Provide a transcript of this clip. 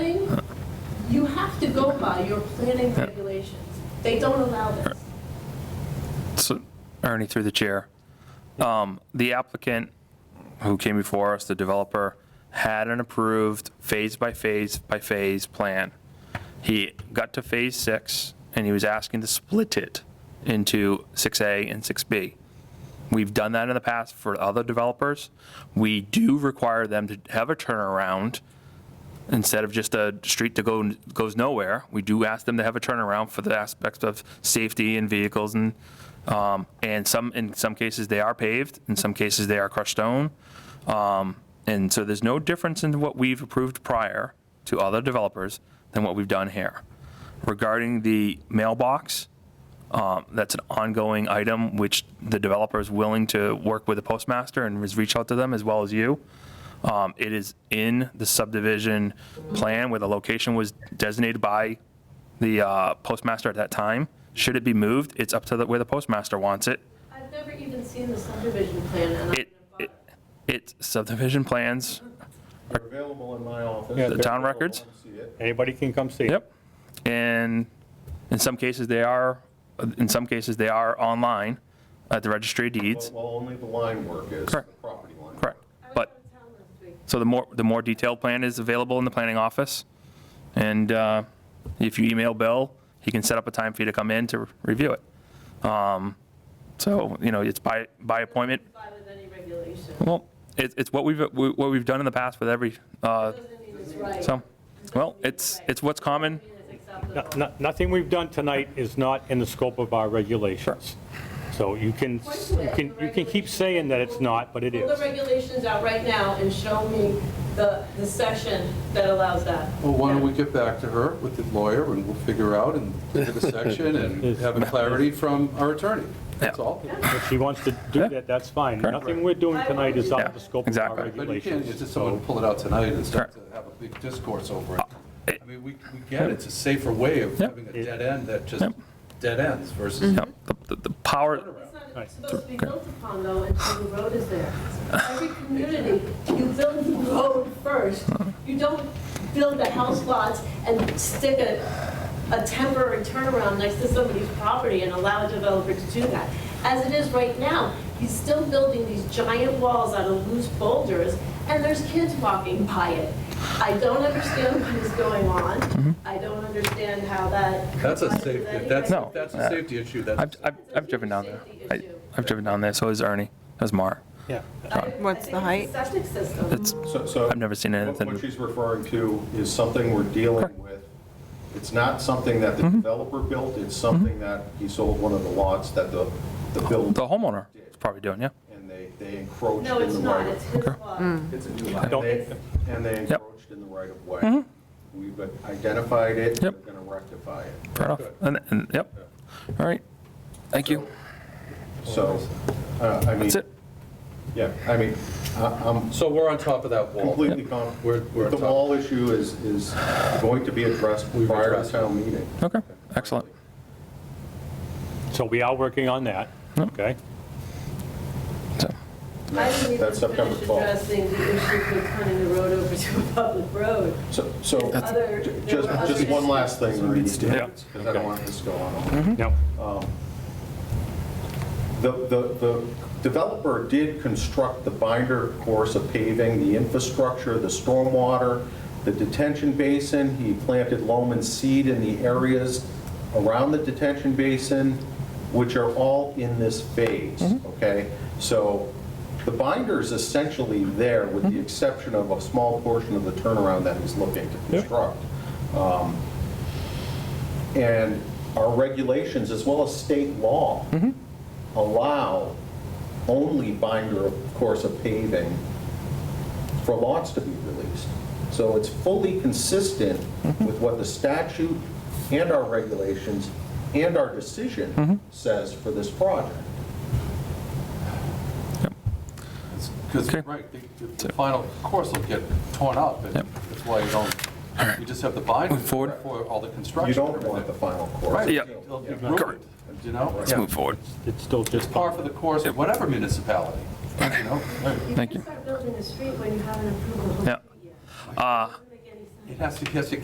to go by your planning regulations. They don't allow this. So, Ernie, through the chair, um, the applicant who came before us, the developer, had an approved phase by phase by phase plan. He got to phase six, and he was asking to split it into 6A and 6B. We've done that in the past for other developers. We do require them to have a turnaround instead of just a street that go, goes nowhere, we do ask them to have a turnaround for the aspects of safety and vehicles and, um, and some, in some cases, they are paved, in some cases, they are crushed stone. Um, and so there's no difference in what we've approved prior to other developers than what we've done here. Regarding the mailbox, um, That's an ongoing item, which the developer is willing to work with the postmaster and has reached out to them as well as you. Um, It is in the subdivision plan where the location was designated by the uh, postmaster at that time. Should it be moved, it's up to the- where the postmaster wants it. I've never even seen the subdivision plan, and I'm It, it- it's subdivision plans, They're available in my office. the town records. See it. Anybody can come see it. Yep. And in some cases, they are, in some cases, they are online at the registry of deeds. Well, only the line work is, the Correct. property line. Correct. I was out But, of town last week. so the more, the more detailed plan is available in the planning office. And uh, if you email Bill, he can set up a time for you to come in to review it. Um, So, you know, it's by, by appointment. Comply with any regulation. Well, it's, it's what we've, what we've done in the past with every, uh, Doesn't mean it's right. so, well, it's, it's what's common. Doesn't mean it's No- acceptable. no- Nothing we've done tonight is not in the scope of our regulations. So you can, you can, you can keep saying that it's not, but it Pull the is. regulations out right now and show me the, the section that allows that. Well, why don't we get back to her with the lawyer, and we'll figure out and get a section and have a clarity from our attorney. That's all. If she wants to do that, that's fine. Nothing we're doing tonight is out of the scope of our Yeah, But you can't regulations. just someone pull it out tonight and start to have a big discourse over Uh, it. I mean, we we get it, it's a safer way of Yep. having a dead end that just dead ends versus Yeah, the- the the power, It's not supposed to be built upon though until the road is there. Every community, you build the road first. You don't build the house lots and stick a, a temporary turnaround next to somebody's property and allow a developer to do that. As it is right now, he's still building these giant walls out of loose boulders and there's kids walking by it. I don't understand what is going on. I don't understand how that. That's a complies with safety, any if that's, No. uh, if that's a safety issue, that's. I've, I've I've driven down there. I- I've driven down there, so has Ernie, has Mar. Yeah. What's the height? I think it's a Septic system. It's, So- So. I've never seen anything. What she's referring to is something we're dealing with. It's not something that the Mm-hmm. developer built, it's something that he sold one of the lots that the, the builder, the homeowner is probably doing, yeah. and they, they encroached No, in it's the not, right it's of. his lot. Mm. It's a new lot. Don't- And they- and they encroached in the right of way. We've identified it, we're Mm-hmm. Yep. going to rectify it. Fair enough. And, and, yep. All right. Thank you. So, uh, I mean, That's it. yeah, I mean, I- I'm So we're on top of that wall. completely con, We're- we're the on top. wall issue is, is going to be addressed We've prior to addressed it. town meeting. Okay, excellent. So we are working on that, okay? So, I didn't even That's September finish 12th. addressing the issue of turning the road over to a public road. So, so, Other- ju- there just, were just other one last thing, Ernie, Yeah. because I don't want this to go on. No, The, the, the developer did construct the binder course of paving, the infrastructure, the stormwater, the detention basin. He planted loam and seed in the areas around the detention basin, which are all in this phase, okay? So the binder is essentially there with the exception of a small portion of the turnaround that he's looking to construct. Um, And our regulations, as well as state law, allow only binder, of course, of paving for lots to be released. So it's fully consistent with what the statute and our regulations and our decision says for this project. Because, right, the- the final course will get torn up, and that's why you don't, you just have the binder for all the construction. You don't want the final course. Right, Yeah. it'll be ruined, you know? Let's move forward. it's still just, Par for the course of whatever municipality, you know? You Thank can't you. start building a street when you haven't approved the whole Yeah. street yet. Uh, Doesn't make any sense. It has to, it has to